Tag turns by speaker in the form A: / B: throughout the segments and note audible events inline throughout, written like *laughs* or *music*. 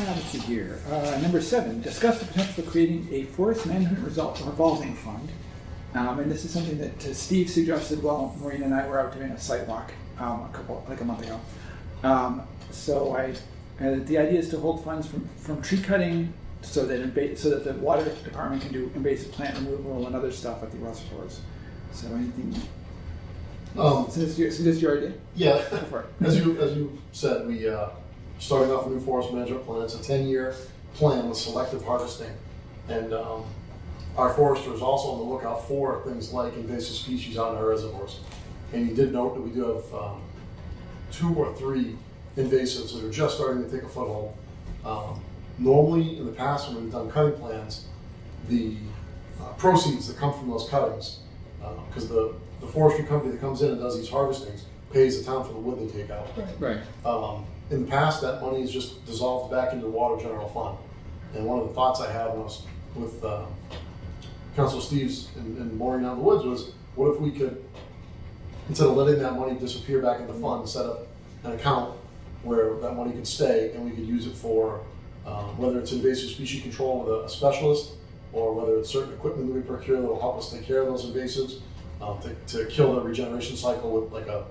A: Uh, Let's see here. Uh, Number seven, discuss the potential for creating a forest management result revolving fund. Um, And this is something that uh, Steve suggested while Maureen and I were out doing a site walk um, a couple, like a month ago. Um, So I, uh, the idea is to hold funds from, from tree cutting so that, inva- so that the water department can do invasive plant removal and other stuff at the reservoirs. So anything,
B: Um,
A: is this your, is this your idea?
B: yeah,
A: Go for it.
B: as you, as you said, we, uh, started off a new forest management plan. It's a ten-year plan with selective harvesting. And, um, our forester is also on the lookout for things like invasive species on our reservoirs. And you did note that we do have, um, two or three invasives that are just starting to take a foothold. Um, Normally, in the past, when we've done cutting plans, the uh, proceeds that come from those cuttings, because Uh, the, the forestry company that comes in and does these harvestings pays the town for the wood they take out.
A: Right.
B: Um, in the past, that money is just dissolved back into the water general fund. And one of the thoughts I had when I was with uh, Council Steve's and, and Maureen out in the woods was, what if we could, instead of letting that money disappear back in the fund, set up an account where that money could stay and we could use it for, um, whether it's invasive species control with a, a specialist or whether it's certain equipment that we procure that will help us take care of those invasives, um, to, to kill the regeneration cycle with like a,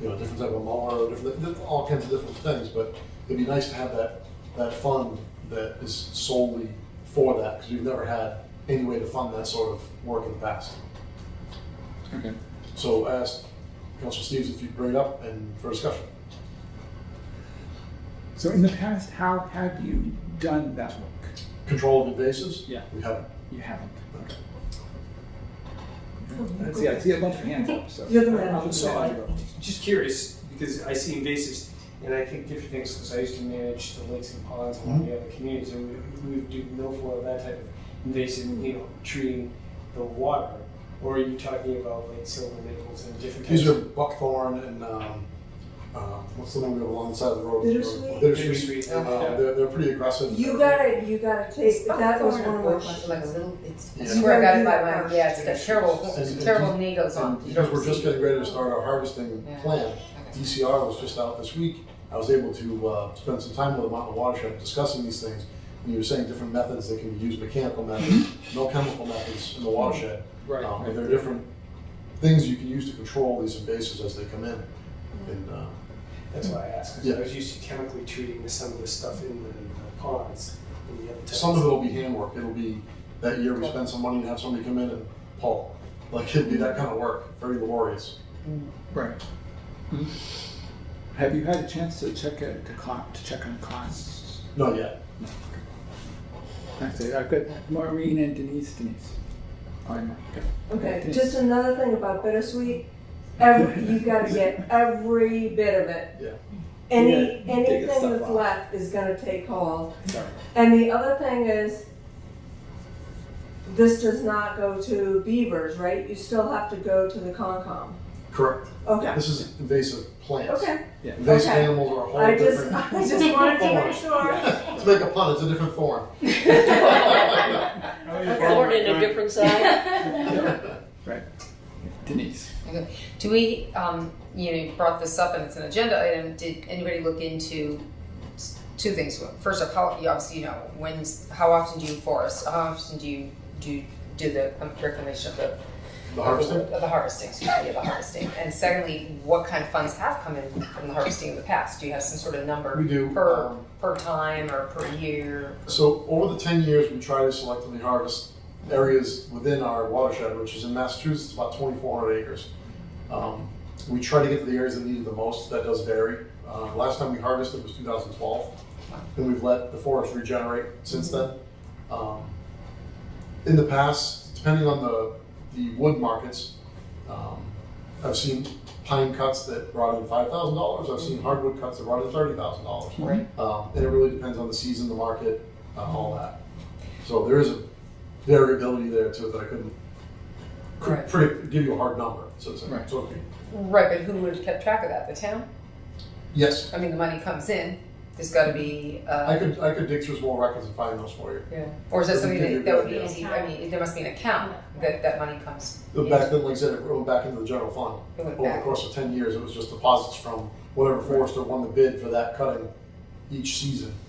B: you know, different type of mower, or different, th- all kinds of different things, but it'd be nice to have that, that fund that is solely for that, because we've never had any way to fund that sort of work in the past.
A: Okay.
B: So I asked Council Steves if you'd bring it up and for discussion.
A: So in the past, how have you done that work?
B: Control of invasives?
A: Yeah.
B: We haven't.
A: You haven't.
B: Okay.
C: Oh,
A: I see, I see a bunch of hands up, so.
C: You're the man.
A: I'll just
D: So
A: let
D: I-
A: you go.
D: Just curious, because I see invasives, and I think different things, because I used to manage the lakes and ponds in
B: Mm-hmm.
D: the other communities, and we, we would do milfoil, that type of invasive, you know, treating the water. Or are you talking about like silver maples and different types?
B: These are
D: of
B: buckthorn and, um, uh, what's the one we have along the side of the road?
C: Bittersweet?
B: Bittersweet. Uh, they're, they're pretty aggressive.
C: You gotta, you gotta take, that was one of my
E: It's Like a
C: questions.
E: little, it's, I
B: Yeah.
E: swear I got it by my, yeah, it's got terrible,
B: And-
E: terrible needles on.
B: And Because we're just getting ready to start our harvesting
E: Yeah.
B: plan,
E: Okay.
B: DCR was just out this week. I was able to uh, spend some time with them out in the watershed discussing these things. And you were saying different methods that can be used, mechanical methods,
C: Mm-hmm.
B: no chemical methods in the watershed.
A: Right,
D: Oh,
B: Um,
A: right.
B: But there are different things you can use to control these invasives as they come in.
C: Mm-hmm.
B: And uh,
D: That's why I asked, because
B: Yeah.
D: I was used to chemically treating the- some of the stuff in the the ponds and the other types.
B: some of it will be handwork. It'll be, that year we spend some money to have somebody come in and pull. Like, it'd be that kind of work, very laborious.
A: Right. Mhm. Have you had a chance to check it, to co- to check on costs?
B: Not yet.
A: That's it, I've got Maureen and Denise, Denise. Oh, I'm, okay.
C: Okay, just another thing about bittersweet, every, you gotta get every bit of it.
B: Yeah.
C: Any,
A: Yeah, dig the
C: anything
A: stuff
C: that's
A: out.
C: left is gonna take hold.
A: Sorry.
C: And the other thing is, this does not go to Beavers, right? You still have to go to the Concom.
B: Correct.
C: Okay,
B: This is invasive plants.
C: okay.
B: Invasive
C: Okay.
B: animals are a whole
C: *laughs* I just,
B: different.
C: I just wanted to
B: form.
C: make sure.
B: *laughs* Let's make a pun. It's a different form.
F: Born in a different side.
A: Denise.
E: Do we, um, you know, you brought this up and it's an agenda item, did anybody look into s- two things? First of all, you obviously, you know, when's, how often do you forest, how often do you, do, you do the um, reclamation of the
B: The harvester.
E: Of the harvesting, excuse me, of the harvesting. And secondly, what kind of funds have come in from the harvesting in the past? Do you have some sort of number?
B: We do,
E: Per,
B: um,
E: per time or per year?
B: So over the ten years, we try to selectively harvest areas within our watershed, which is in Massachusetts about twenty-four hundred acres. Um, we try to get to the areas that need it the most. That does vary. Uh, last time we harvested was two thousand twelve, and we've let the forest regenerate since then. Um, in the past, depending on the the wood markets, um, I've seen pine cuts that brought in five thousand dollars. I've seen hardwood cuts that brought in thirty thousand dollars.
E: Right.
B: Um, and it really depends on the season, the market, uh, all that. So there is a variability there to it that I couldn't could
E: Right.
B: predict- give you a hard number. So it's
A: Right.
B: so okay.
E: Right, but who would have kept track of that? The town?
B: yes,
E: I mean, the money comes in, there's gotta be,
B: I
E: uh,
B: could I could dig through small records and find those for you.
E: yeah. Or is that something
B: Give you a
E: that, that would
B: good
E: be
B: idea.
E: easy, I mean, there must be an account that, that money comes.
B: But Back then, like I said, it went back into the general fund.
E: It went
B: Over the
E: back.
B: course of ten years, it was just deposits from whatever forester won the bid for that cutting each season.